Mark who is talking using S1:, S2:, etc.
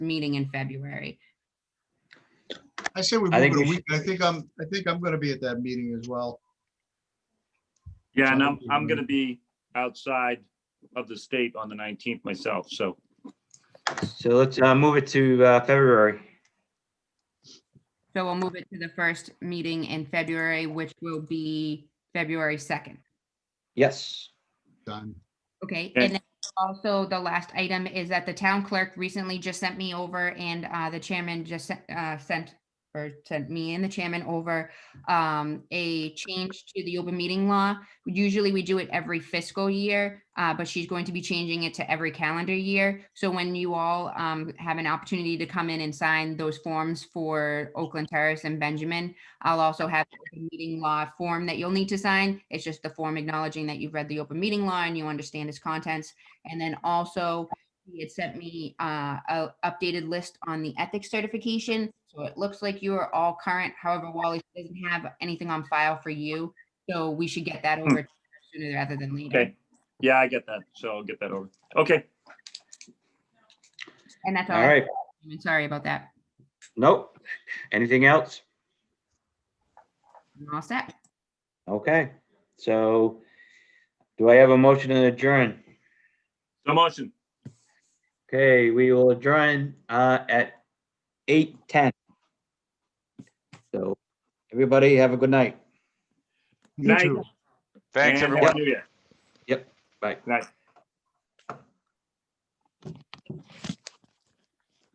S1: meeting in February.
S2: I say we move
S3: I think
S2: it a
S3: we
S2: week. I think I'm, I think I'm gonna be at that meeting as well.
S4: Yeah, and I'm,
S2: Sounds
S4: I'm
S2: good.
S4: gonna be outside of the state on the nineteenth myself, so.
S3: So let's uh, move it to uh, February.
S1: So we'll move it to the first meeting in February, which will be February 2nd.
S3: Yes.
S2: Done.
S1: Okay,
S4: Okay.
S1: and then also the last item is that the town clerk recently just sent me over and uh, the chairman just sent- uh, sent or sent me and the chairman over um, a change to the open meeting law. Usually we do it every fiscal year, uh, but she's going to be changing it to every calendar year. So when you all um, have an opportunity to come in and sign those forms for Oakland Terrace and Benjamin, I'll also have the open meeting law form that you'll need to sign. It's just the form acknowledging that you've read the open meeting law and you understand its contents. And then also, he had sent me uh, a updated list on the ethics certification. So it looks like you are all current. However, Wally doesn't have anything on file for you. So we should get that over sooner rather than later.
S4: Okay, yeah, I get that, so I'll get that over. Okay,
S1: And that's all.
S3: All
S1: I-
S3: right.
S1: I'm Sorry about that.
S3: Nope. Anything else?
S1: I'm all set.
S3: Okay. So do I have a motion to adjourn?
S4: so motion,
S3: Okay, we will adjourn uh, at 8:10. So everybody have a good night.
S2: You
S4: Night.
S2: too.
S5: Thanks,
S4: and
S5: everyone.
S4: Happy New Year.
S3: Bye.
S4: Night.